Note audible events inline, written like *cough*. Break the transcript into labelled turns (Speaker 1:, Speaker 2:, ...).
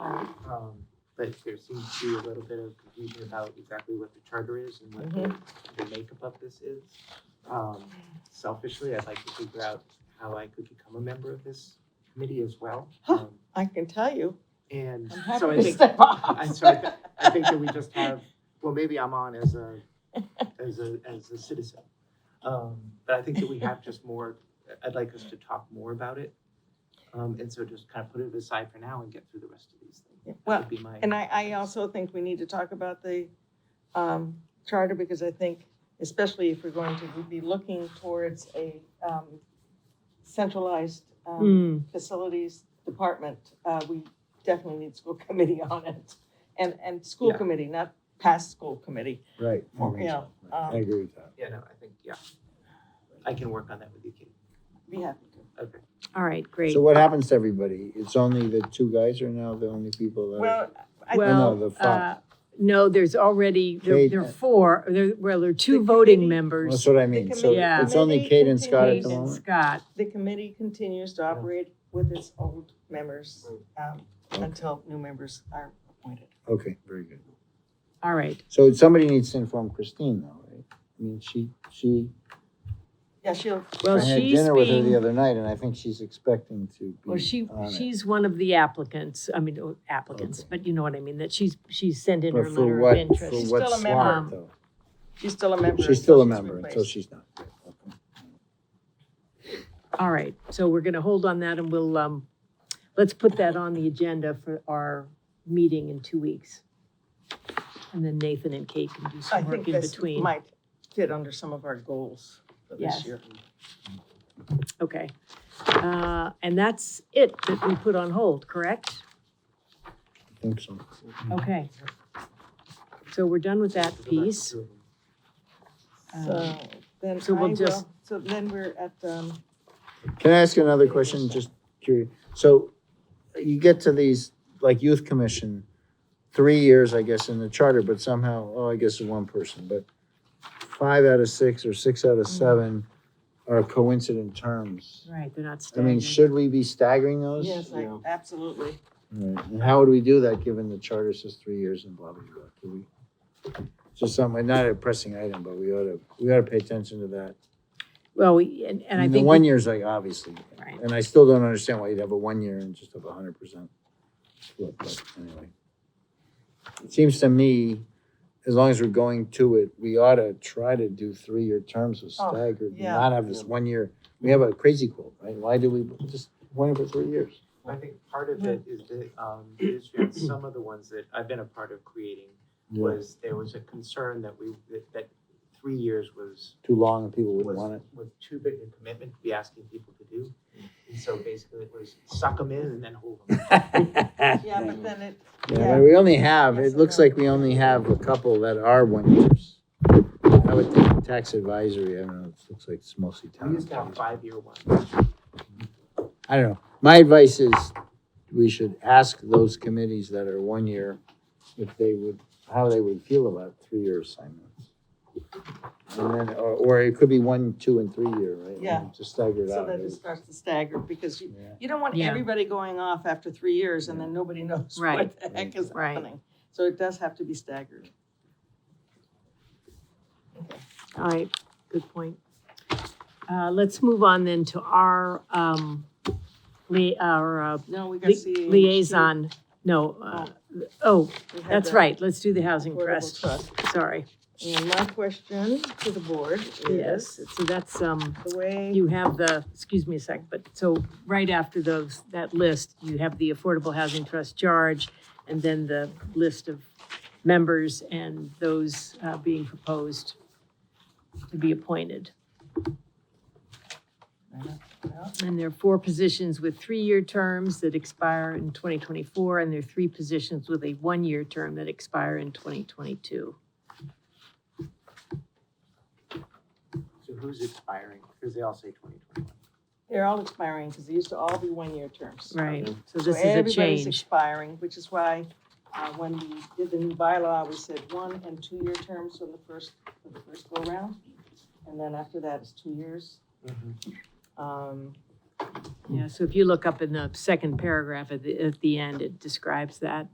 Speaker 1: Um, but there seems to be a little bit of confusion about exactly what the charter is and what
Speaker 2: Mm-hmm.
Speaker 1: the, the makeup of this is. Um, selfishly, I'd like to figure out how I could become a member of this committee as well.
Speaker 2: *gasps* Huh.
Speaker 1: Um,
Speaker 2: I can tell you.
Speaker 1: And
Speaker 2: I'm
Speaker 1: so
Speaker 2: happy
Speaker 1: I
Speaker 2: to
Speaker 1: think,
Speaker 2: step
Speaker 1: *laughs*
Speaker 2: up.
Speaker 1: I, so I, thi- I think that we just have, well, maybe I'm on as
Speaker 2: *laughs*
Speaker 1: a, as a, as a citizen. Um, but I think that we have just more, I'd like us to talk more about it. Um, and so just kind of put it aside for now and get through the rest of these things.
Speaker 2: Yeah,
Speaker 1: That
Speaker 2: *laughs* well,
Speaker 1: would be my-
Speaker 2: And I, I also think we need to talk about the um, charter because I think, especially if we're going to be looking towards a um, centralized um,
Speaker 3: Mm,
Speaker 2: facilities department, uh, we definitely need school *laughs* committee on it. And, and school
Speaker 1: Yeah.
Speaker 2: committee, not past school committee,
Speaker 4: Right.
Speaker 1: More
Speaker 2: you know.
Speaker 4: I
Speaker 2: um,
Speaker 4: agree with that.
Speaker 1: Yeah, no, I think, yeah. I can work on that with you, Katie.
Speaker 2: Be happy to.
Speaker 1: Okay.
Speaker 2: Hmm.
Speaker 3: all right, great.
Speaker 4: So what happens to everybody? It's only the two guys are now the only people that.
Speaker 2: Well, I think
Speaker 4: no,
Speaker 3: Well,
Speaker 4: the
Speaker 3: uh,
Speaker 4: five.
Speaker 3: no, there's already, there there are
Speaker 4: Kate.
Speaker 3: four, there, well, there are two
Speaker 2: The
Speaker 3: voting
Speaker 2: committee-
Speaker 4: That's
Speaker 3: members.
Speaker 4: what I mean. So
Speaker 3: Yeah.
Speaker 4: it's only Kate and Scott at
Speaker 3: Kate
Speaker 4: the
Speaker 2: Committee
Speaker 3: and
Speaker 4: moment?
Speaker 3: Scott,
Speaker 2: the committee continues to operate with its old members um, until new members are appointed.
Speaker 4: Okay, very good.
Speaker 3: all right.
Speaker 4: So somebody needs to inform Christine though, right? I mean, she, she,
Speaker 2: Yeah, she'll,
Speaker 4: I
Speaker 3: Well,
Speaker 4: had
Speaker 3: she's
Speaker 4: dinner with her the
Speaker 3: being,
Speaker 4: other night and I think she's expecting to
Speaker 3: well, she,
Speaker 4: be on it.
Speaker 3: she's one of the applicants, I mean, oh, applicants,
Speaker 4: Okay.
Speaker 3: but you know what I mean, that she's, she's sent in
Speaker 4: But
Speaker 3: her
Speaker 4: for
Speaker 3: letter of
Speaker 4: what, for
Speaker 3: interest.
Speaker 2: She's
Speaker 4: what
Speaker 2: still a member.
Speaker 4: slot though?
Speaker 2: she's still a member.
Speaker 4: She's still a
Speaker 2: until
Speaker 4: member until
Speaker 2: replaced.
Speaker 4: she's not. Right, okay.
Speaker 3: All right, so we're gonna hold on that and we'll, um, let's put that on the agenda for our meeting in two weeks. And then Nathan and Kate can do
Speaker 2: I
Speaker 3: some
Speaker 2: think
Speaker 3: work in
Speaker 2: this
Speaker 3: between.
Speaker 2: might fit under some of our goals for this
Speaker 3: Yes.
Speaker 2: year.
Speaker 3: Okay. Uh, And that's it that we put on hold, correct?
Speaker 4: I think so.
Speaker 2: Mm-hmm.
Speaker 3: Okay. So we're done with that piece. Um,
Speaker 2: So then
Speaker 3: so we'll
Speaker 2: I will-
Speaker 3: just-
Speaker 2: so then we're at, um,
Speaker 4: Can I ask you another question? Just curious. So you get to these, like youth commission, three years, I guess, in the charter, but somehow, oh, I guess it's one person, but five out of six or six out of seven are coincident terms.
Speaker 3: Right, they're not
Speaker 4: I
Speaker 3: staying.
Speaker 4: mean, should we be staggering those?
Speaker 2: yes, I-
Speaker 4: Yeah. *laughs*
Speaker 2: absolutely.
Speaker 4: Right. And how would we do that, given the charter says three years and blah, blah, blah? Could we? Just something, not a pressing item, but we ought to, we ought to pay attention to that.
Speaker 3: Well, we- and and I
Speaker 4: The
Speaker 3: think,
Speaker 4: one
Speaker 3: we-
Speaker 4: year's like, obviously,
Speaker 3: Right.
Speaker 4: and I still don't understand why you'd have a one year and just have a hundred percent split, but anyway. It seems to me, as long as we're going to it, we ought to try to do three-year terms with
Speaker 2: Oh,
Speaker 4: staggered,
Speaker 2: yeah.
Speaker 4: not have this one year. We have a crazy quote, right? Why do we just one year for three years?
Speaker 1: I think part of it is that,
Speaker 3: *clears throat*
Speaker 1: um, is that some of the ones that I've been a part of creating was, there was a concern that we, that, that three years was,
Speaker 4: Too long and people wouldn't want
Speaker 1: was,
Speaker 4: it.
Speaker 1: was too big a commitment to be asking people to do. And so basically it was suck them in and then hold them.
Speaker 2: *laughs* Yeah, but then it,
Speaker 4: Yeah,
Speaker 2: yeah.
Speaker 4: but we only have,
Speaker 2: Yes,
Speaker 4: it
Speaker 2: I
Speaker 4: looks
Speaker 2: know.
Speaker 4: like we only have a couple that are one years. I would think tax advisory, I don't know, it looks like it's mostly
Speaker 1: We
Speaker 4: town.
Speaker 1: used to have five-year ones.
Speaker 4: I don't know. My advice is we should ask those committees that are one year if they would, how they would feel about three-year assignments. And then, or, or it could be one, two, and three-year, right?
Speaker 2: Yeah.
Speaker 4: Just stagger it
Speaker 2: so
Speaker 4: out.
Speaker 2: that it starts to stagger because you,
Speaker 4: Yeah.
Speaker 2: you don't want
Speaker 3: Yeah.
Speaker 2: everybody going off after three years and then nobody knows *laughs* what
Speaker 3: Right.
Speaker 2: the heck is
Speaker 3: Right.
Speaker 2: happening. So it does have to be staggered.
Speaker 3: all right, good point. Uh, Let's move on then to our, um, lia- our uh,
Speaker 2: No, we got
Speaker 3: li-
Speaker 2: CAH.
Speaker 3: liaison, no, uh, oh,
Speaker 2: We had
Speaker 3: that's
Speaker 2: the
Speaker 3: right, let's do the Housing
Speaker 2: Affordable
Speaker 3: Trust, sorry.
Speaker 2: And my question to the board
Speaker 3: Yes,
Speaker 2: is,
Speaker 3: so that's, um,
Speaker 2: the way,
Speaker 3: You have the, excuse me a sec, but so right after those, that list, you have the Affordable Housing Trust charge and then the list of members and those uh, being proposed to be appointed. And there are four positions with three-year terms that expire in 2024, and there are three positions with a one-year term that expire in 2022.
Speaker 1: So who's expiring? Because they all say twenty twenty-one.
Speaker 2: they're all expiring because they used to all be one-year terms.
Speaker 3: Right, so
Speaker 2: So
Speaker 3: this is a
Speaker 2: everybody's
Speaker 3: change.
Speaker 2: expiring, which is why uh, when we did the new bylaw, we said one and two-year terms for the first, for the first go-round. And then after that is two years.
Speaker 1: Mm-hmm.
Speaker 2: Um,
Speaker 3: Yeah, so if you look up in the second paragraph at the, at the end, it describes that.